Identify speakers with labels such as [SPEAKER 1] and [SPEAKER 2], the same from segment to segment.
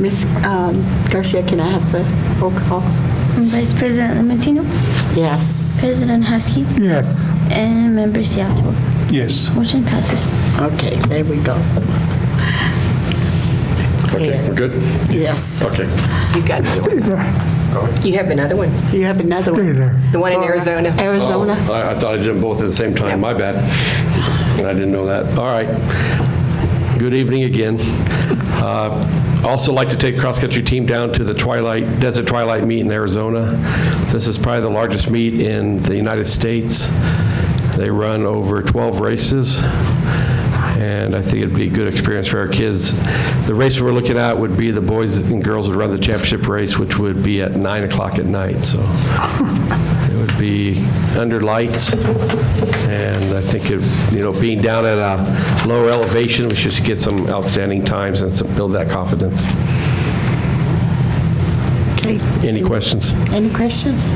[SPEAKER 1] Ms. um, Garcia, can I have the roll call?
[SPEAKER 2] Vice President Limentino,
[SPEAKER 1] Yes.
[SPEAKER 2] President Husky,
[SPEAKER 3] Yes.
[SPEAKER 2] and Member Seattle.
[SPEAKER 3] Yes.
[SPEAKER 2] Motion passes.
[SPEAKER 1] Okay, there we go.
[SPEAKER 4] Okay, we're good?
[SPEAKER 1] Yes.
[SPEAKER 4] Okay.
[SPEAKER 5] You got another
[SPEAKER 3] Stay
[SPEAKER 5] one.
[SPEAKER 3] there.
[SPEAKER 5] You have another one.
[SPEAKER 1] You have another
[SPEAKER 3] Stay
[SPEAKER 1] one.
[SPEAKER 3] there.
[SPEAKER 5] The one in Arizona.
[SPEAKER 1] Arizona.
[SPEAKER 4] Oh, I I thought I did them both at the same time, my bad. I didn't know that. All right. Good evening again. Uh, Also like to take cross-country team down to the Twilight, Desert Twilight Meet in Arizona. This is probably the largest meet in the United States. They run over 12 races, and I think it'd be a good experience for our kids. The race we're looking at would be the boys and girls would run the championship race, which would be at 9 o'clock at night, so it would be under lights, and I think, it- you know, being down at a low elevation, we should get some outstanding times and some- build that confidence.
[SPEAKER 1] Okay.
[SPEAKER 4] Any questions?
[SPEAKER 1] Any questions?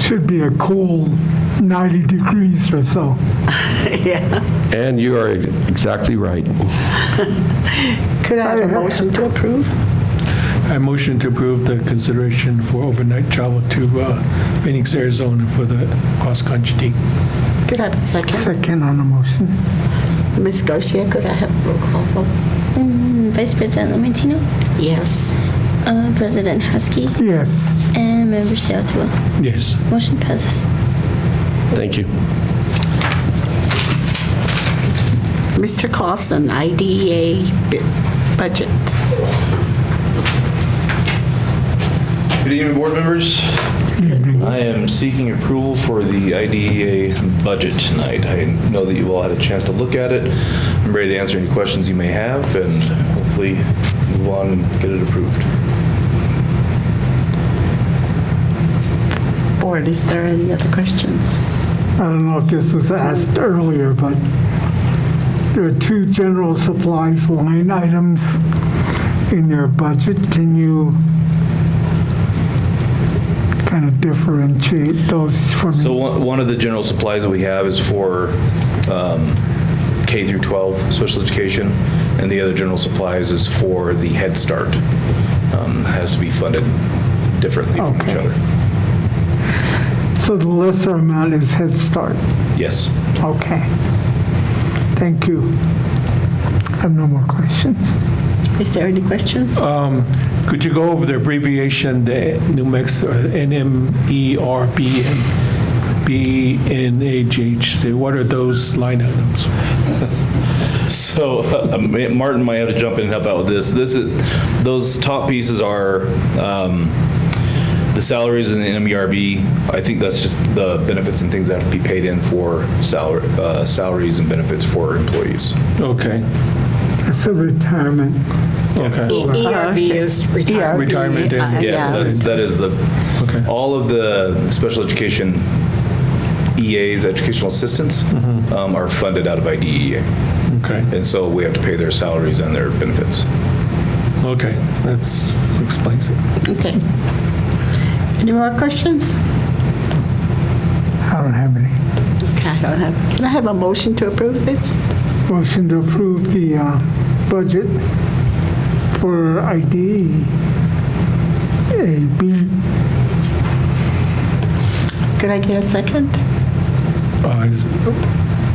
[SPEAKER 3] Should be a cool 90 degrees or so.
[SPEAKER 1] Yeah.
[SPEAKER 4] And you are exactly right.
[SPEAKER 1] Could I have a motion to approve?
[SPEAKER 6] I motion to approve the consideration for overnight travel to uh, Phoenix, Arizona for the cross-country team.
[SPEAKER 1] Could I have a second?
[SPEAKER 3] Second on the motion.
[SPEAKER 1] Ms. Garcia, could I have a roll call vote?
[SPEAKER 2] Mm, Vice President Limentino,
[SPEAKER 1] Yes.
[SPEAKER 2] uh, President Husky,
[SPEAKER 3] Yes.
[SPEAKER 2] and Member Seattle.
[SPEAKER 6] Yes.
[SPEAKER 2] Motion passes.
[SPEAKER 4] Thank you.
[SPEAKER 1] Mr. Clausen, IDEA bu- budget.
[SPEAKER 7] Good evening, board members. I am seeking approval for the IDEA budget tonight. I know that you all had a chance to look at it. I'm ready to answer any questions you may have and hopefully move on and get it approved.
[SPEAKER 1] Board, is there any other questions?
[SPEAKER 3] I don't know if this was asked earlier, but there are two general supplies line items in your budget. Can you kind of differentiate those for
[SPEAKER 7] So
[SPEAKER 3] me?
[SPEAKER 7] one one of the general supplies that we have is for um, K through 12 special education, and the other general supplies is for the Head Start. Um, Has to be funded differently from each
[SPEAKER 3] Okay.
[SPEAKER 7] other.
[SPEAKER 3] So the lesser amount is Head Start.
[SPEAKER 7] Yes.
[SPEAKER 3] Okay. Thank you. I have no more questions.
[SPEAKER 1] Is there any questions?
[SPEAKER 7] Uh,
[SPEAKER 6] Could you go over the abbreviation, the E New Mexico, E NMERBN, BNHH? What are those line items?
[SPEAKER 7] So uh, Martin might have to jump in and help out with this. This is, those top pieces are um, the salaries in the MERB. I think that's just the benefits and things that have to be paid in for salary, uh, salaries and benefits for employees.
[SPEAKER 6] Okay,
[SPEAKER 3] It's a retirement.
[SPEAKER 1] E,
[SPEAKER 6] okay,
[SPEAKER 5] ERB is retirement.
[SPEAKER 6] Retirement is-
[SPEAKER 1] Uh,
[SPEAKER 7] Yes, that is- that is the,
[SPEAKER 6] Okay.
[SPEAKER 7] all of the special education EAs, educational assistants, um, are funded out of IDEA.
[SPEAKER 6] okay,
[SPEAKER 7] And so we have to pay their salaries and their benefits.
[SPEAKER 6] okay. That's, explains it.
[SPEAKER 1] Okay. Any more questions?
[SPEAKER 3] I don't have any.
[SPEAKER 1] Okay, I don't have, can I have a motion to approve this?
[SPEAKER 3] Motion to approve the uh, budget for E. ID AB.
[SPEAKER 1] Could I get a second?
[SPEAKER 6] Uh, is-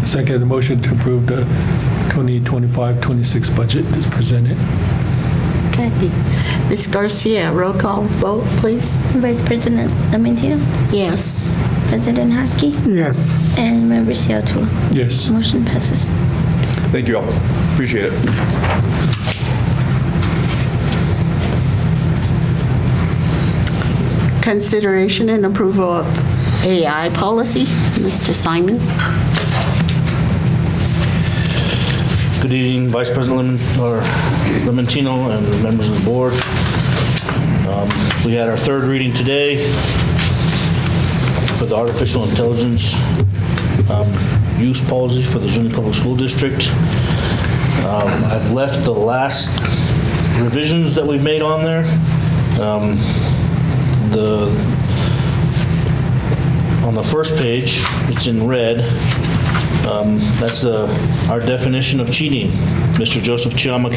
[SPEAKER 6] Second, the motion to approve the 2025-26 budget is presented.
[SPEAKER 1] Okay. Ms. Garcia, roll call vote, please.
[SPEAKER 2] Vice President Limentino,
[SPEAKER 1] Yes.
[SPEAKER 2] President Husky,
[SPEAKER 3] Yes.
[SPEAKER 2] and Member Seattle.
[SPEAKER 6] Yes.
[SPEAKER 2] Motion passes.
[SPEAKER 7] Thank you all. Appreciate it.
[SPEAKER 1] Consideration and approval of AI policy, Mr. Simons.
[SPEAKER 8] Good evening, Vice President Lim- or Limentino and members of the board. Um, We had our third reading today for the artificial intelligence um, use policy for the Zuni Public School District. Um, I've left the last revisions that we've made on there. Um, The, on the first page, it's in red, Um, That's uh, our definition of cheating. Mr. Joseph Chiama